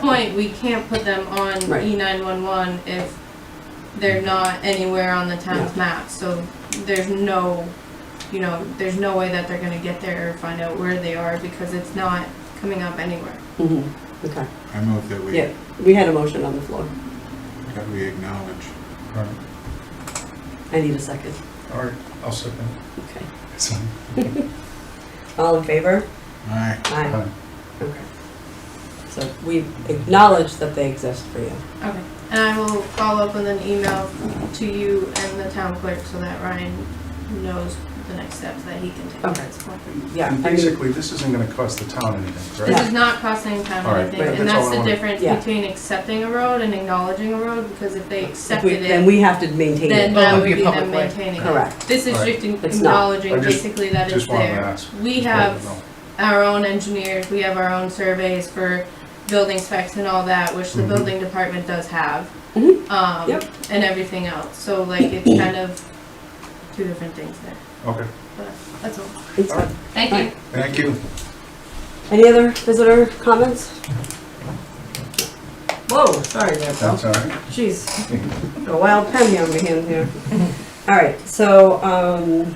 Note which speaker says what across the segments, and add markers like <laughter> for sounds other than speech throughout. Speaker 1: point, we can't put them on
Speaker 2: Right.
Speaker 1: E nine one one if they're not anywhere on the town's map, so there's no, you know, there's no way that they're gonna get there or find out where they are because it's not coming up anywhere.
Speaker 2: Mhm, okay.
Speaker 3: I move that we,
Speaker 2: Yeah, we had a motion on the floor.
Speaker 3: that we acknowledge.
Speaker 4: All right.
Speaker 2: I need a second.
Speaker 4: All right, I'll second.
Speaker 2: Okay.
Speaker 4: So,
Speaker 2: All in favor?
Speaker 3: Aye.
Speaker 2: Aye.
Speaker 4: uh,
Speaker 2: Okay. So we acknowledge that they exist for you.
Speaker 1: Okay. And I will follow up with an email to you and the town clerk so that Ryan knows the next steps that he can take at
Speaker 2: Okay.
Speaker 1: this point.
Speaker 2: Yeah, I mean-
Speaker 4: Basically, this isn't gonna cost the town anything,
Speaker 1: This
Speaker 4: right?
Speaker 1: is not costing town
Speaker 4: All right,
Speaker 1: anything,
Speaker 2: right,
Speaker 1: and
Speaker 4: that's
Speaker 1: that's
Speaker 4: all I
Speaker 1: the
Speaker 4: wanted.
Speaker 1: difference
Speaker 2: Yeah.
Speaker 1: between accepting a road and acknowledging a road, because if they
Speaker 2: If we-
Speaker 1: accepted
Speaker 2: Then
Speaker 1: it,
Speaker 2: we have to maintain
Speaker 1: then
Speaker 2: it.
Speaker 5: Well, it
Speaker 1: that
Speaker 5: would
Speaker 1: would
Speaker 5: Oh, be a
Speaker 1: be them
Speaker 5: public way.
Speaker 1: maintaining it.
Speaker 2: Correct.
Speaker 1: This is
Speaker 4: All right.
Speaker 1: just in-
Speaker 2: It's not.
Speaker 1: acknowledging
Speaker 4: I just-
Speaker 1: basically that it's
Speaker 4: Just wanted to
Speaker 1: there.
Speaker 4: ask.
Speaker 1: We
Speaker 4: Just wanted to
Speaker 1: have
Speaker 4: know.
Speaker 1: our own engineers, we have our own surveys for building specs and all that, which the
Speaker 4: Mhm.
Speaker 1: building department does have.
Speaker 2: Mhm.
Speaker 1: Um,
Speaker 2: Yep.
Speaker 1: and everything else, so like it's kind of two different things there,
Speaker 4: Okay,
Speaker 1: but that's all.
Speaker 2: It's fine.
Speaker 1: Thank you.
Speaker 2: Right.
Speaker 4: thank you.
Speaker 2: Any other visitor comments? Whoa, sorry there, Bill.
Speaker 4: That's all right.
Speaker 2: Jeez, a wild pen on my hand here. All right, so, um,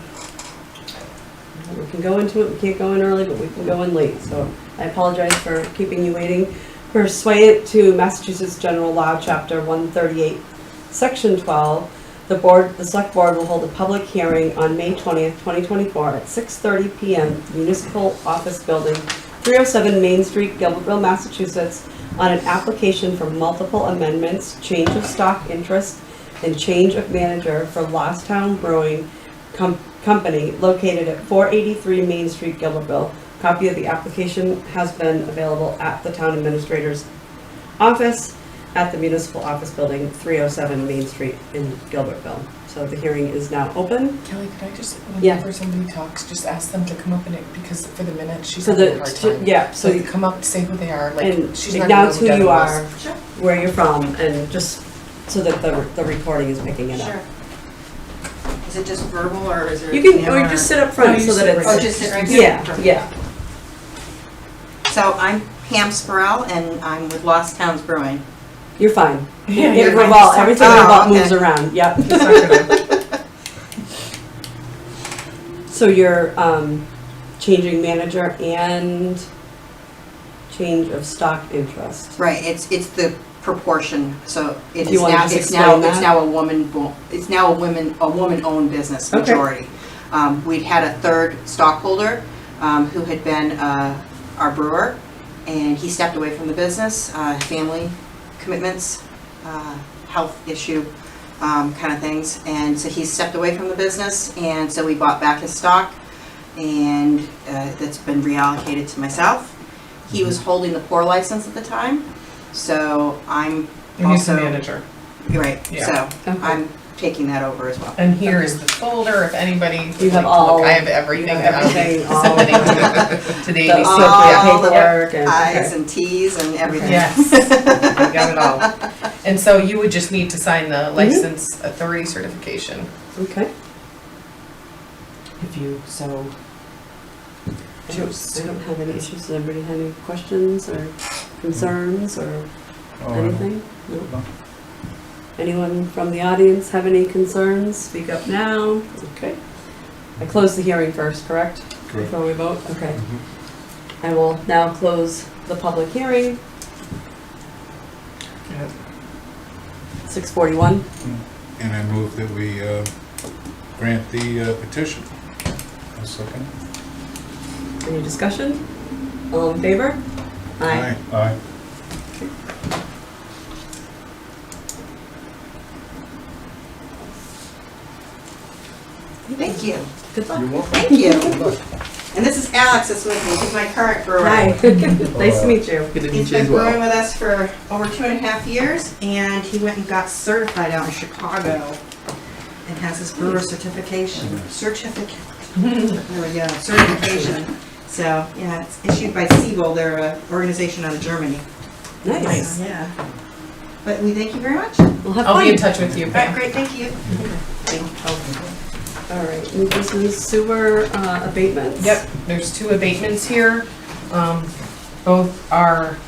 Speaker 2: we can go into it, we can't go in early, but we can go in late, so I apologize for keeping you waiting. Pursuant to Massachusetts General Law, Chapter one thirty-eight, Section twelve, the board, the select board will hold a public hearing on May twentieth, twenty twenty-four at six thirty PM, Municipal Office Building, three oh seven Main Street, Gilbertville, Massachusetts, on an application for multiple amendments, change of stock interest, and change of manager for Lost Town Brewing Com- Company located at 483 Main Street, Gilbertville. Copy of the application has been available at the town administrator's office at the municipal office building, 307 Main Street in Gilbertville. So the hearing is now open.
Speaker 5: Kelly, could I just,
Speaker 2: Yeah.
Speaker 5: whenever somebody talks, just ask them to come up and, it- because for the minute, she's
Speaker 2: So
Speaker 5: having a
Speaker 2: the,
Speaker 5: hard time.
Speaker 2: yeah, so
Speaker 5: So you
Speaker 2: you-
Speaker 5: come up, say who they are, like,
Speaker 2: And
Speaker 5: she's not gonna know
Speaker 2: announce
Speaker 5: who
Speaker 2: who
Speaker 5: Devin
Speaker 2: you
Speaker 5: was.
Speaker 2: are,
Speaker 1: Sure.
Speaker 2: where you're from, and just so that the, the recording is picking it up.
Speaker 6: Is it just verbal or is there?
Speaker 2: You can, or
Speaker 6: camera?
Speaker 2: you just sit up front
Speaker 5: No, you
Speaker 2: so that
Speaker 5: sit
Speaker 2: it's.
Speaker 6: Oh, just sit right here?
Speaker 2: Yeah,
Speaker 6: Perfect.
Speaker 2: yeah.
Speaker 6: So I'm Pam Sproul and I'm with Lost Towns Brewing.
Speaker 2: You're <laughs> fine.
Speaker 5: Yeah,
Speaker 2: It
Speaker 5: you're fine.
Speaker 2: revolves, everything
Speaker 6: Oh,
Speaker 2: revolves,
Speaker 6: okay.
Speaker 2: moves around, yep.
Speaker 5: She's not gonna-
Speaker 2: <laughs> So you're, um, changing manager and change of stock interest.
Speaker 6: Right, it's, it's the proportion, so it
Speaker 2: You
Speaker 6: is
Speaker 2: wanna
Speaker 6: now,
Speaker 2: just
Speaker 6: it's now,
Speaker 2: explain
Speaker 6: it's
Speaker 2: that?
Speaker 6: now a woman, bo- it's now a women, a woman-owned business
Speaker 2: Okay.
Speaker 6: majority. Um, we'd had a third stockholder, um, who had been, uh, our brewer, and he stepped away from the business, uh, family commitments, uh, health issue, um, kind of things, and so he stepped away from the business, and so we bought back his stock, and, uh, that's been reallocated to myself. He was holding the pour license at the time, so I'm
Speaker 5: You need
Speaker 6: also,
Speaker 5: some manager.
Speaker 6: right,
Speaker 5: Yeah.
Speaker 6: so
Speaker 2: Okay.
Speaker 6: I'm taking that over as well.
Speaker 5: And here is the folder, if anybody would like to
Speaker 2: You have all-
Speaker 5: look, I have
Speaker 2: You
Speaker 5: everything.
Speaker 2: have
Speaker 5: that I'll <laughs>
Speaker 2: everything, all,
Speaker 5: Somebody
Speaker 2: the
Speaker 5: To the
Speaker 2: the
Speaker 5: ABC.
Speaker 6: all the
Speaker 2: paperwork and,
Speaker 6: I's
Speaker 2: okay.
Speaker 6: and T's and
Speaker 2: <laughs>
Speaker 6: everything.
Speaker 5: Yes, I got it all. And so you would just need to sign the
Speaker 2: Mm-hmm.
Speaker 5: license authority certification,
Speaker 2: Okay.
Speaker 5: if you so
Speaker 2: I don't, I don't have any issues. Does anybody have any questions or concerns or
Speaker 4: Oh,
Speaker 2: anything? No?
Speaker 4: No.
Speaker 2: Anyone from the audience have any concerns? Speak up now. Okay. I close the hearing first, correct?
Speaker 4: Correct.
Speaker 2: Before we vote? Okay.
Speaker 4: Mhm.
Speaker 2: I will now close the public hearing,
Speaker 4: Yeah.
Speaker 2: 6:41.
Speaker 3: And I move that we uh, grant the uh, petition.
Speaker 4: I'll second.
Speaker 2: Any discussion? All in favor? Aye.
Speaker 4: Aye.
Speaker 6: Thank you,
Speaker 2: Good luck.
Speaker 4: You're welcome.
Speaker 6: thank you.
Speaker 4: Good luck.
Speaker 6: And this is Alex that's with me, he's my current brewer.
Speaker 2: Hi. <laughs> Nice to meet you.
Speaker 6: He's been brewing with us for over two and a half years, and he went and got certified out in Chicago and has his brewer certification,
Speaker 2: Mm-hmm.
Speaker 6: certificate. There we go, certification. So, yeah, it's issued by Siebel, they're an organization out of Germany.
Speaker 2: Nice.
Speaker 6: Yeah. But we thank you very much.
Speaker 2: We'll have
Speaker 5: I'll be in
Speaker 2: fun.
Speaker 5: touch with you,
Speaker 6: All right,
Speaker 5: Pam.
Speaker 6: great, thank you.
Speaker 2: All right, new business sewer uh, abatements.
Speaker 5: Yep, there's two abatements here. Um, Both are